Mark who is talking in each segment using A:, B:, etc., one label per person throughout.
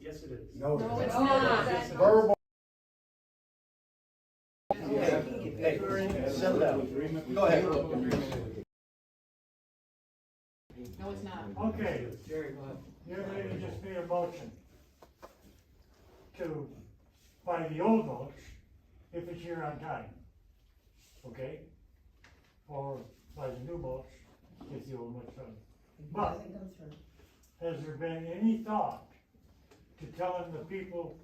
A: Yes, it is.
B: No.
C: No, it's
D: No,
C: not.
D: it's not.
B: Verbal.
A: Hey, settle down. Go ahead.
C: No, it's not.
E: Okay. You're ready to just made a motion to buy the old mulch if it's here on time, okay? Or buy the new mulch if the old one's done. But has there been any thought to telling the people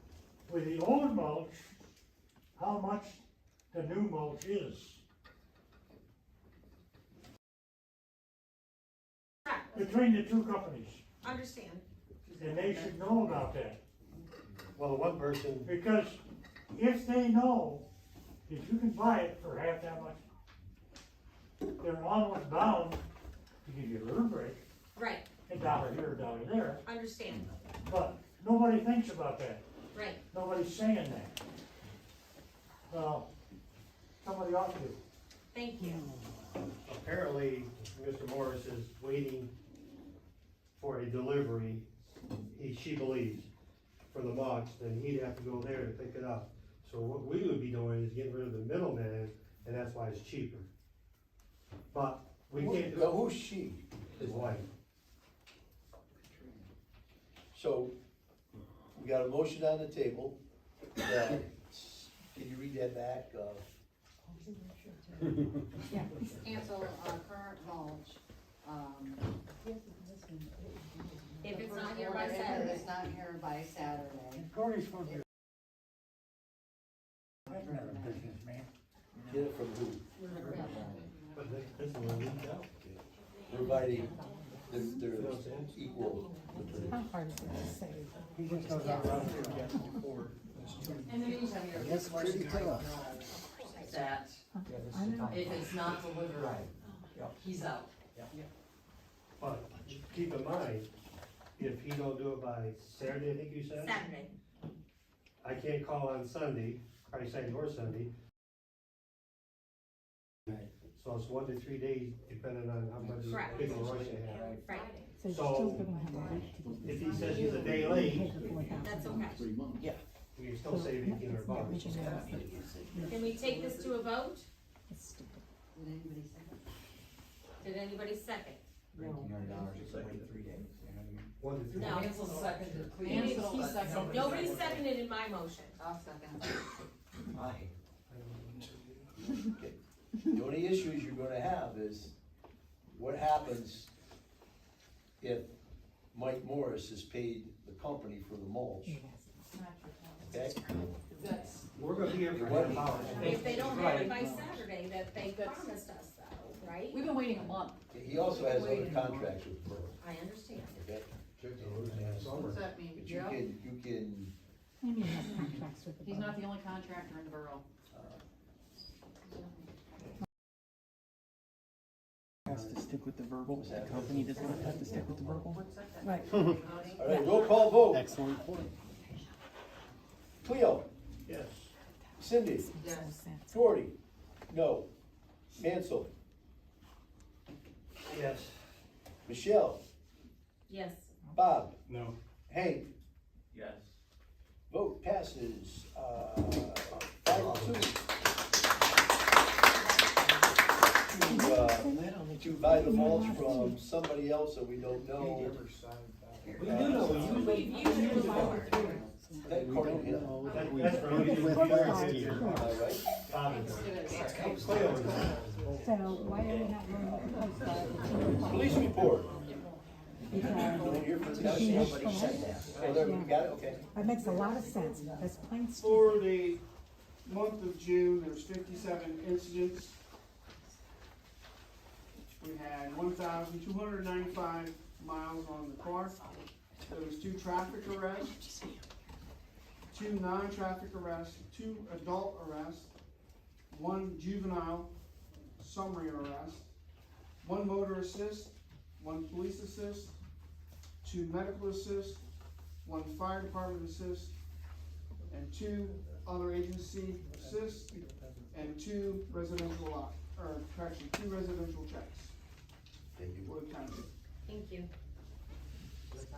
E: with the old mulch how much the new mulch is? Between the two companies,
D: Understand.
E: and they should know about that.
A: Well, one person,
E: Because if they know that you can buy it for half that much, they're almost bound to give you a little break,
D: Right,
E: a dollar here, a dollar there,
D: understand,
E: but nobody thinks about that.
D: right.
E: Nobody's saying that. Well, somebody ought to.
D: Thank you.
A: apparently, Mr. Morris is waiting for a delivery, he, she believes, for the box, then he'd have to go there to pick it up. So what we would be doing is getting rid of the middleman, and that's why it's cheaper. But we can't,
B: Who- Who's she?
A: his wife,
B: So, we got a motion on the table. that- Can you read that back? Uh,
C: Cancel, uh, current mulch, um.
D: If
C: the
D: it's
C: first
D: not here by
C: order, if
D: Saturday.
C: It's not here by Saturday.
B: Get it from who?
A: but this, this one leaked out.
B: Providing they're,
A: You know
B: they're
A: what I'm saying?
B: equal.
F: How hard is it to say?
C: In the meantime, you're. That's pretty tough.
G: that
F: I know.
G: if it's not delivered, he's out.
A: But keep in mind, if he don't do it by Saturday, I think you said?
D: Saturday.
A: I can't call on Sunday, probably Saturday or Sunday. So it's one to three days depending on how much
D: Correct.
A: big of a rush they have.
D: Right,
F: So you're still gonna have a week to get.
A: If he says he's a day late,
D: that's okay.
A: we can still save eighteen hundred bucks.
D: Can we take this to a vote?
C: Would anybody second?
D: Did anybody second?
A: One to three.
D: No.
G: Cancel seconded, please.
D: Cancel,
G: He seconded.
D: Nobody seconded in my motion.
C: I'll second.
B: The only issues you're gonna have is what happens if Mike Morris has paid the company for the mulch, okay?
G: That's,
A: We're gonna be here for half an hour.
D: If they don't have it by Saturday, that they promised us though, right?
G: we've been waiting a month.
B: He also has other contracts with Burl,
D: I understand.
B: okay?
C: What's that mean?
B: But you
C: Joe?
B: can, you can,
F: Maybe he has contracts with the.
C: He's not the only contractor in the borough.
H: has to stick with the verbal, the company does not have to stick with the verbal.
F: Right.
B: all right, roll call vote,
H: Excellent point.
B: Cleo,
A: Yes.
B: Cindy,
C: Yes.
B: Gordy, no, Mansell,
A: Yes.
B: Michelle,
D: Yes.
B: Bob,
A: No.
B: Hank,
I: Yes.
B: vote passes, uh, five oh to two. To, uh, to buy the mulch from somebody else that we don't know,
A: We do know,
D: We've used it before.
B: that according to him,
A: That- that's from
H: With last year.
B: am I right?
A: Bobby.
F: So why are we not going to post that?
B: Police report,
F: Because
B: no, you're from the
F: she
B: county.
F: is full.
B: Oh, there, we got it, okay.
F: That makes a lot of sense, that's plain stupid.
J: For the month of June, there's fifty-seven incidents. We had one thousand two hundred ninety-five miles on the car. There was two traffic arrests, two non-traffic arrests, two adult arrests, one juvenile summary arrest, one motor assist, one police assist, two medical assist, one fire department assist, and two other agency assists, and two residential lot, or correction, two residential checks
B: Thank you.
J: for the county.
D: Thank you.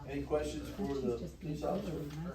B: Any questions for the police officer?